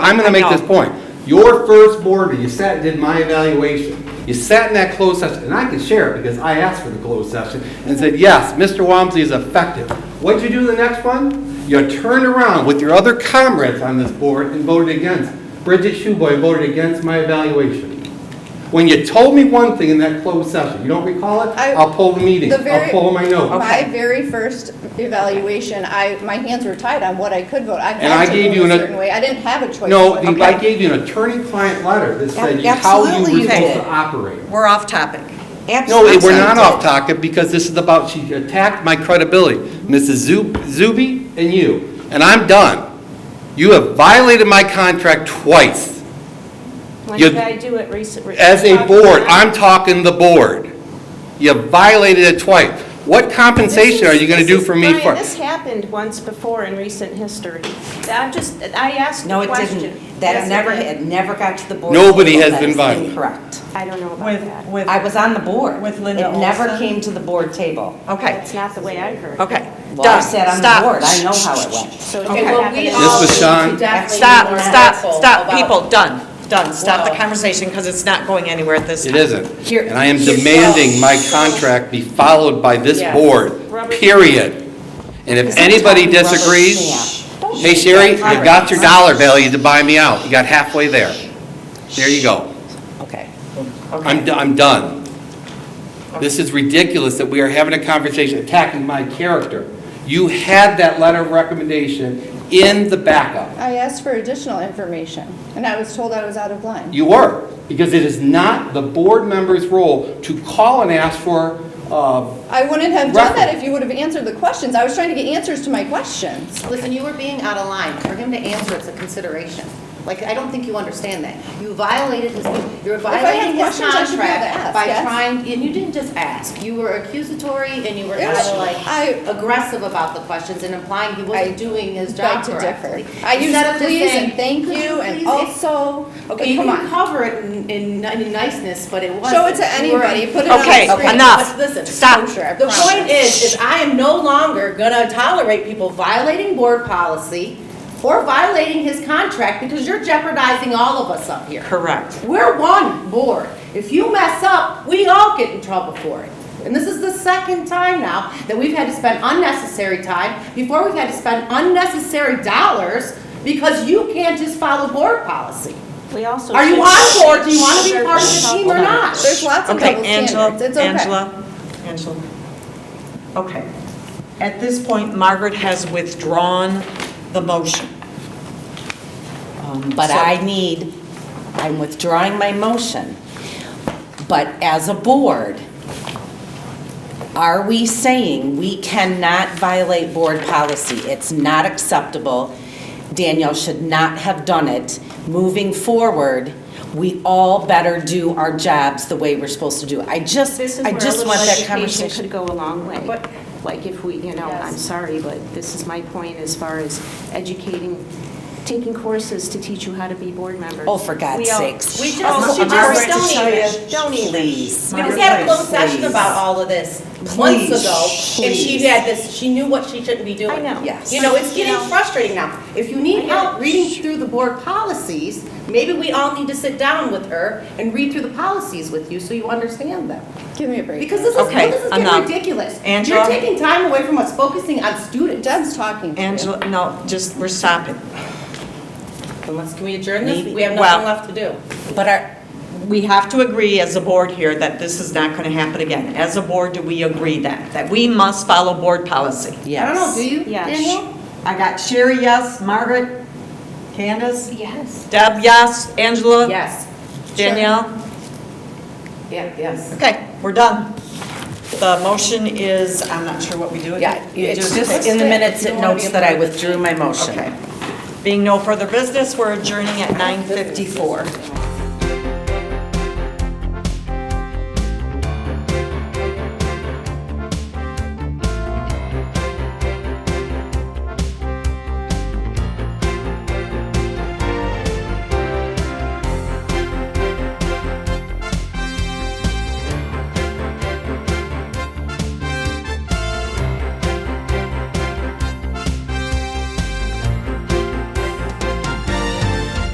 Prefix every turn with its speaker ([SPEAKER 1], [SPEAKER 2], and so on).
[SPEAKER 1] I'm gonna make
[SPEAKER 2] I know.
[SPEAKER 1] this point. Your first board, meeting, you sat, and did my evaluation. You sat in that closed session, and I can share it because I asked for the closed session and said, yes, Mr. Wamsley is effective. What'd you do in the next one? You turned around with your other comrades on this board and voted against. Bridget Shuboy voted against my evaluation. When you told me one thing in that closed session, you don't recall it?
[SPEAKER 3] I-
[SPEAKER 1] I'll pull the meeting,
[SPEAKER 3] The very-
[SPEAKER 1] I'll pull my notes.
[SPEAKER 3] My very first evaluation, I, my hands were tied on what I could vote. I
[SPEAKER 1] I
[SPEAKER 3] had to
[SPEAKER 1] gave
[SPEAKER 3] vote
[SPEAKER 1] you
[SPEAKER 3] a
[SPEAKER 1] an-
[SPEAKER 3] certain way. I didn't have a choice.
[SPEAKER 1] No,
[SPEAKER 3] but-
[SPEAKER 1] I gave you an attorney-client letter that said you- how you
[SPEAKER 2] Absolutely
[SPEAKER 1] were
[SPEAKER 2] you
[SPEAKER 1] supposed
[SPEAKER 2] did.
[SPEAKER 1] to operate.
[SPEAKER 2] We're off topic.
[SPEAKER 1] No,
[SPEAKER 2] Absolutely.
[SPEAKER 1] it- we're not off topic because this is about, she attacked my credibility, Mrs. Zu- Zuby and you, and I'm done. You have violated my contract twice.
[SPEAKER 4] When
[SPEAKER 1] You-
[SPEAKER 4] did I do it recently?
[SPEAKER 1] As a board, I'm talking the board. You violated it twice. What compensation are you going to do for me
[SPEAKER 4] Brian,
[SPEAKER 1] for?
[SPEAKER 4] this happened once before in recent history. I'm just, I asked
[SPEAKER 2] No,
[SPEAKER 4] a
[SPEAKER 2] it
[SPEAKER 4] question.
[SPEAKER 2] didn't. That
[SPEAKER 4] Yes, it
[SPEAKER 2] never,
[SPEAKER 4] did.
[SPEAKER 2] it never got to the board.
[SPEAKER 1] Nobody
[SPEAKER 2] table.
[SPEAKER 1] has
[SPEAKER 2] That
[SPEAKER 1] been
[SPEAKER 2] is
[SPEAKER 1] violated.
[SPEAKER 2] Incorrect.
[SPEAKER 4] I don't know about
[SPEAKER 5] With,
[SPEAKER 4] that.
[SPEAKER 5] with,
[SPEAKER 2] I was on the board.
[SPEAKER 5] With Linda
[SPEAKER 2] It never
[SPEAKER 5] Olson?
[SPEAKER 2] came to the board table.
[SPEAKER 5] okay,
[SPEAKER 4] That's not the way I heard. it.
[SPEAKER 5] okay.
[SPEAKER 2] Well, I
[SPEAKER 5] Done.
[SPEAKER 2] sat on
[SPEAKER 5] Stop.
[SPEAKER 2] the board, I know how it went.
[SPEAKER 4] So it
[SPEAKER 5] Okay.
[SPEAKER 4] didn't
[SPEAKER 5] Well,
[SPEAKER 4] happen.
[SPEAKER 6] We
[SPEAKER 4] in-
[SPEAKER 6] all
[SPEAKER 1] This was
[SPEAKER 6] need
[SPEAKER 1] Sean.
[SPEAKER 6] to definitely be
[SPEAKER 5] Stop,
[SPEAKER 6] more
[SPEAKER 5] stop,
[SPEAKER 6] careful
[SPEAKER 5] stop,
[SPEAKER 6] about-
[SPEAKER 5] people, done, done. Stop the
[SPEAKER 6] Whoa.
[SPEAKER 5] conversation because it's not going anywhere at this time.
[SPEAKER 1] It isn't. And I am demanding my contract be followed by this
[SPEAKER 6] Yeah.
[SPEAKER 1] board, period. And if anybody
[SPEAKER 2] Rubber stamp.
[SPEAKER 1] disagrees, hey Sherry, you got your dollar value to buy me out. You got halfway there. There you go.
[SPEAKER 2] Okay.
[SPEAKER 1] I'm, do- I'm done. This is ridiculous that we are having a conversation attacking my character. You had that letter of recommendation in the backup.
[SPEAKER 3] I asked for additional information, and I was told I was out of line.
[SPEAKER 1] You were, because it is not the board member's role to call and ask for, uh,
[SPEAKER 3] I wouldn't have done that
[SPEAKER 1] Right.
[SPEAKER 3] if you would have answered the questions. I was trying to get answers to my questions.
[SPEAKER 6] Listen, you were being out of line. For him to answer, it's a consideration. Like, I don't think you understand that. You violated his, you're
[SPEAKER 3] had
[SPEAKER 6] violating his
[SPEAKER 3] questions, I should be able to ask,
[SPEAKER 6] contract by
[SPEAKER 3] yes.
[SPEAKER 6] trying, and you didn't just ask. You were accusatory and you were
[SPEAKER 3] It
[SPEAKER 6] kind
[SPEAKER 3] was-
[SPEAKER 6] of like
[SPEAKER 3] I-
[SPEAKER 6] aggressive about the questions and implying he
[SPEAKER 3] I
[SPEAKER 6] wasn't doing his
[SPEAKER 3] Beg
[SPEAKER 6] job
[SPEAKER 3] to
[SPEAKER 6] correctly.
[SPEAKER 3] differ. I used
[SPEAKER 6] Instead of just
[SPEAKER 3] please
[SPEAKER 6] saying,
[SPEAKER 3] and thank
[SPEAKER 6] "Could
[SPEAKER 3] you and oh,
[SPEAKER 6] please-"
[SPEAKER 3] also,
[SPEAKER 6] Okay,
[SPEAKER 3] okay,
[SPEAKER 6] you
[SPEAKER 3] come
[SPEAKER 6] can
[SPEAKER 3] on.
[SPEAKER 6] cover it in, in in niceness, but it wasn't.
[SPEAKER 3] Show it to
[SPEAKER 6] You were-
[SPEAKER 3] anybody, put it on the
[SPEAKER 5] Okay,
[SPEAKER 3] screen.
[SPEAKER 5] enough.
[SPEAKER 6] Listen,
[SPEAKER 5] Stop.
[SPEAKER 3] Sure, I
[SPEAKER 6] The
[SPEAKER 3] promise.
[SPEAKER 6] point is, is I am no longer gonna tolerate people violating board policy or violating his contract because you're jeopardizing all of us up here.
[SPEAKER 5] Correct.
[SPEAKER 6] We're one board. If you mess up, we all get in trouble for it. And this is the second time now that we've had to spend unnecessary time, before we've had to spend unnecessary dollars because you can't just follow board policy.
[SPEAKER 4] We also.
[SPEAKER 6] Are you
[SPEAKER 4] should-
[SPEAKER 6] on board? Do you want to be part of the team or
[SPEAKER 4] Hold on.
[SPEAKER 6] not?
[SPEAKER 3] There's lots of
[SPEAKER 5] Okay,
[SPEAKER 3] double
[SPEAKER 5] Angela,
[SPEAKER 3] standards. It's okay.
[SPEAKER 5] Angela, Angela. Okay. At this point, Margaret has withdrawn the motion.
[SPEAKER 2] Um, But
[SPEAKER 5] So-
[SPEAKER 2] I need, I'm withdrawing my motion. But as a board, are we saying we cannot violate board policy? It's not acceptable. Danielle should not have done it. Moving forward, we all better do our jobs the way we're supposed to do. it. I just,
[SPEAKER 4] This is
[SPEAKER 2] I
[SPEAKER 4] where a
[SPEAKER 2] just
[SPEAKER 4] little
[SPEAKER 2] want that
[SPEAKER 4] education
[SPEAKER 2] conversation.
[SPEAKER 4] could go a long way.
[SPEAKER 6] But-
[SPEAKER 4] Like if we, you know, I'm sorry, but this is my point as far as educating, taking courses to teach you how to be board members.
[SPEAKER 2] Oh, for God's
[SPEAKER 4] We all-
[SPEAKER 2] sakes.
[SPEAKER 4] We just,
[SPEAKER 2] Oh,
[SPEAKER 4] she
[SPEAKER 2] Margaret,
[SPEAKER 4] just, don't even,
[SPEAKER 2] Cecilia,
[SPEAKER 4] don't even.
[SPEAKER 2] Please.
[SPEAKER 6] We just had a closed session
[SPEAKER 2] Please.
[SPEAKER 6] about all of this
[SPEAKER 2] Please,
[SPEAKER 6] months ago, and she
[SPEAKER 2] please.
[SPEAKER 6] had this, she knew what she shouldn't be doing.
[SPEAKER 4] I know.
[SPEAKER 2] Yes.
[SPEAKER 6] You know, it's getting
[SPEAKER 4] You know.
[SPEAKER 6] frustrating now. If you need
[SPEAKER 4] I know.
[SPEAKER 6] help reading through the board policies, maybe we all need to sit down with her and read through the policies with you so you understand them.
[SPEAKER 3] Give me a break.
[SPEAKER 6] Because this is,
[SPEAKER 5] Okay,
[SPEAKER 6] this is
[SPEAKER 5] enough.
[SPEAKER 6] getting ridiculous.
[SPEAKER 5] Angela?
[SPEAKER 6] You're taking time away from us focusing on students.
[SPEAKER 3] Deb's talking to you.
[SPEAKER 5] Angela, no, just, we're stopping.
[SPEAKER 6] Unless, can we adjourn this? We have
[SPEAKER 5] Well-
[SPEAKER 6] nothing left to do.
[SPEAKER 5] But our, we have to agree as a board here that this is not going to happen again. As a board, do we agree that, that we must follow board policy?
[SPEAKER 2] Yes.
[SPEAKER 6] I don't know, do you,
[SPEAKER 4] Yes.
[SPEAKER 6] Danielle?
[SPEAKER 5] I got Sherry, yes, Margaret, Candace,
[SPEAKER 4] Yes.
[SPEAKER 5] Deb, yes, Angela?
[SPEAKER 6] Yes.
[SPEAKER 5] Danielle?
[SPEAKER 6] Yeah, yes.
[SPEAKER 5] Okay, we're done. The motion is, I'm not sure what we do.
[SPEAKER 2] Yeah,
[SPEAKER 5] You
[SPEAKER 2] it's
[SPEAKER 5] do-
[SPEAKER 2] just in the minutes, it notes that I withdrew my motion.
[SPEAKER 5] Okay. Being no further business, we're adjourning at 9:54.